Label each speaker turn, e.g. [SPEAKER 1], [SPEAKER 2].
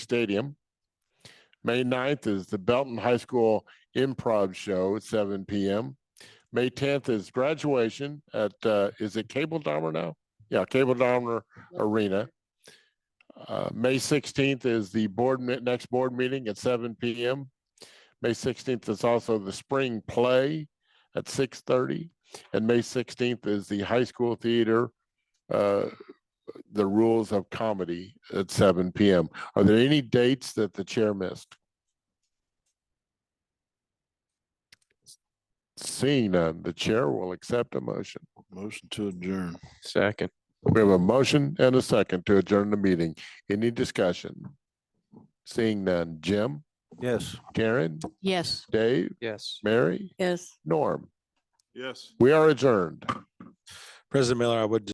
[SPEAKER 1] Stadium. May 9th is the Belton High School Improv Show at seven PM. May tenth is graduation at, uh, is it Cable Dahmer now? Yeah, Cable Dahmer Arena. Uh, May sixteenth is the board, me- next board meeting at seven PM. May sixteenth is also the spring play at six thirty. And May sixteenth is the high school theater, uh, the rules of comedy at seven PM. Are there any dates that the chair missed? Seeing none, the chair will accept a motion.
[SPEAKER 2] Motion to adjourn.
[SPEAKER 3] Second.
[SPEAKER 1] We have a motion and a second to adjourn the meeting. Any discussion? Seeing none, Jim,
[SPEAKER 2] Yes.
[SPEAKER 1] Karen,
[SPEAKER 4] Yes.
[SPEAKER 1] Dave,
[SPEAKER 3] Yes.
[SPEAKER 1] Mary,
[SPEAKER 4] Yes.
[SPEAKER 1] Norm.
[SPEAKER 2] Yes.
[SPEAKER 1] We are adjourned.
[SPEAKER 5] President Miller, I would